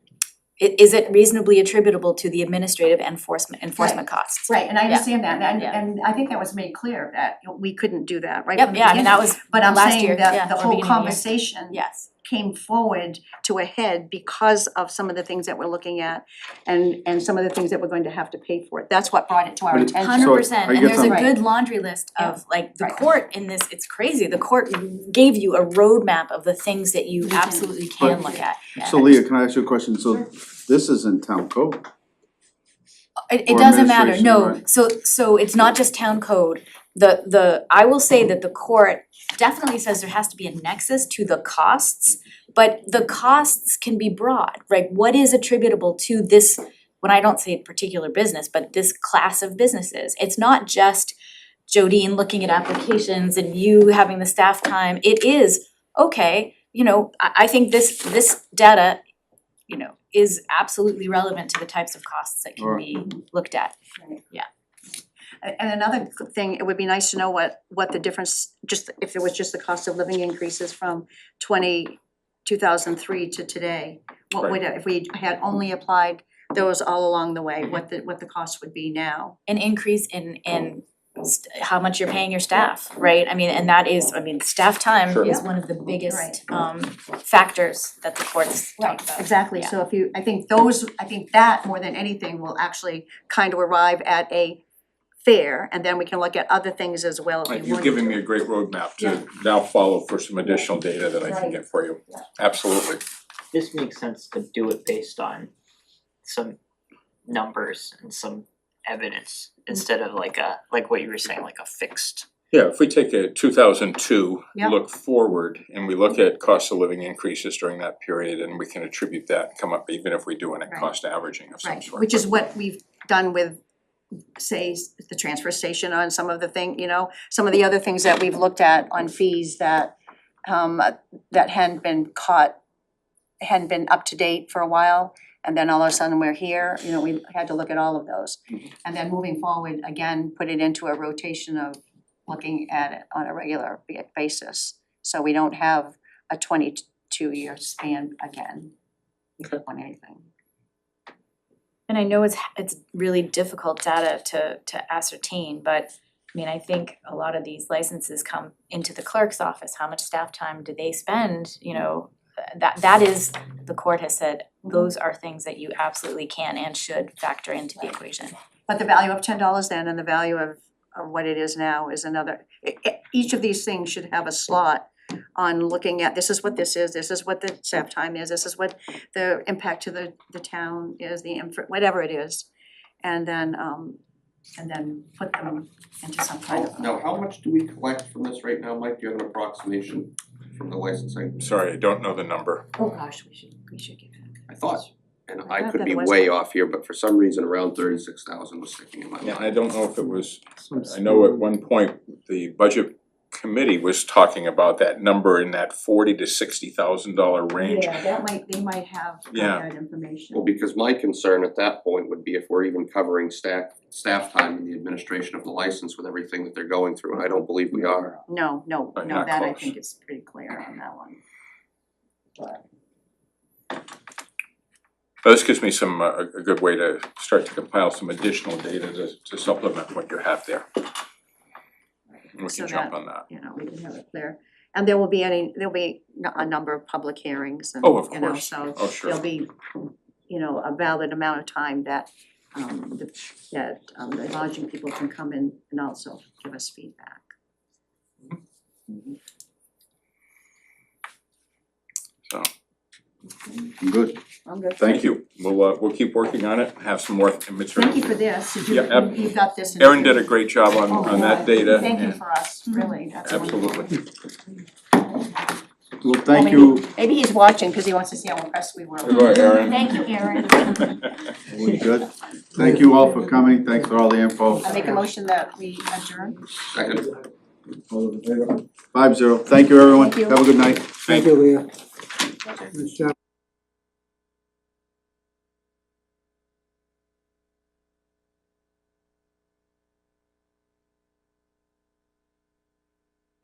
i- is it reasonably attributable to the administrative enforcement enforcement costs? Right, and I Yeah. understand that, and Yeah. and I think that was made clear that we couldn't do that right from Yep, the yeah, I mean, beginning. that was, But I'm last year, saying yeah, that the or whole beginning of the year. conversation yes. came forward to a head because of some of the things that we're looking at and and some of the things that we're going to have to pay for it. That's what brought it to our But it- attention. Hundred So, percent, I and guess there's a I'm- good laundry list of like the Right. court in this, it's crazy, the court gave you a roadmap of the things that you Mhm. absolutely can But- look at. Yeah. So Leah, can I ask you a question? So this is in town code, It it or doesn't matter, administration, no, right. so so it's not just town code, the the, I will say that the court definitely says there has to be a nexus to the costs, but the costs can be broad, right, what is attributable to this, when I don't say a particular business, but this class of businesses, it's not just Jodine looking at applications and you having the staff time, it is, okay, you know, I I think this this data, you know, is absolutely relevant to the types of costs that can Right. be looked at. A- And another c- thing, it would be nice to know what what the difference, just if it was just the cost of living increases from twenty, two thousand three to today. What would, if we had only applied those all along the way, what the what the cost would be now. an increase in in st- how much you're paying your staff, right? I mean, and that is, I mean, staff time Sure. is one of the biggest Right. um factors that the courts talk about. Exactly, yeah. so if you, I think those, I think that more than anything will actually kind of arrive at a fair, and then we can look at other things as well if you Right, want. You've given me a great roadmap to now follow for some additional data that I can get for you. Absolutely. this makes sense to do it based on some numbers and some evidence instead of like a, like what you were saying, like a fixed. Yeah, if we take a two thousand two, Yeah. look forward, and we look at cost of living increases during that period, and we can attribute that, and come up, even if we do an at Right. cost averaging of some Right, sort. which is what we've done with, say, s- the transfer station on some of the thing, you know, some of the other things that we've looked at on fees that um that hadn't been caught, hadn't been up to date for a while, and then all of a sudden we're here, you know, we had to look at all of those. Mm-hmm. And then moving forward, again, put it into a rotation of looking at it on a regular ba- basis. So we don't have a twenty-two year span again Okay. on anything. And I know it's it's really difficult data to to ascertain, but I mean, I think a lot of these licenses come into the clerk's office, how much staff time do they spend, you know? That that is, the court has said, those are things that you absolutely can and should factor into the equation. But the value of ten dollars then and the value of of what it is now is another, e- e- each of these things should have a slot on looking at, this is what this is, this is what the staff time is, this is what the impact to the the town is, the inf- whatever it is. And then um and then put them into some kind Oh, How, of. now, how much do we collect from this right now, Mike? Do you have an approximation from the licensing? Sorry, I don't know the number. Oh, gosh, we should, we should get that. I thought, and I I thought could that be it was- way off here, but for some reason around thirty-six thousand was sticking in my Yeah, mind. I don't know if it was, I know at one point, the budget committee was talking about that number in that forty to sixty thousand dollar range. Yeah, that might, they might have Yeah. that information. Well, because my concern at that point would be if we're even covering staff, staff time in the administration of the license with everything that they're going through, and I don't believe we are. No, no, But no, not that I close. think is pretty clear on that one. Well, This gives me some, uh, a a good way to start to compile some additional data to to supplement what you have there. And we So can jump that- on that. you know, we can have it clear. And there will be any, there'll be n- a number of public hearings and, Oh, of you know, course. so Oh, sure. there'll be, you know, a valid amount of time that um the that um the lodging people can come in and also give us feedback. So, good. I'm good. thank you. We'll, uh, we'll keep working on it, have some more material. Thank you for this. Did Yeah, ab- you, you got this. in- Erin did a great job on, Oh, on that yeah. data. Thank you and- for us, really. That's wonderful. Absolutely. Well, thank you. Maybe he's watching because he wants to see how impressed we were. Good, Erin. Thank you, Erin. We good? Thank you all for coming. Thanks for all the info. I make a motion that we adjourn. Second. Five zero. Thank you, everyone. Thank you. Have a good night. Thank Thank you, Leah. Good job.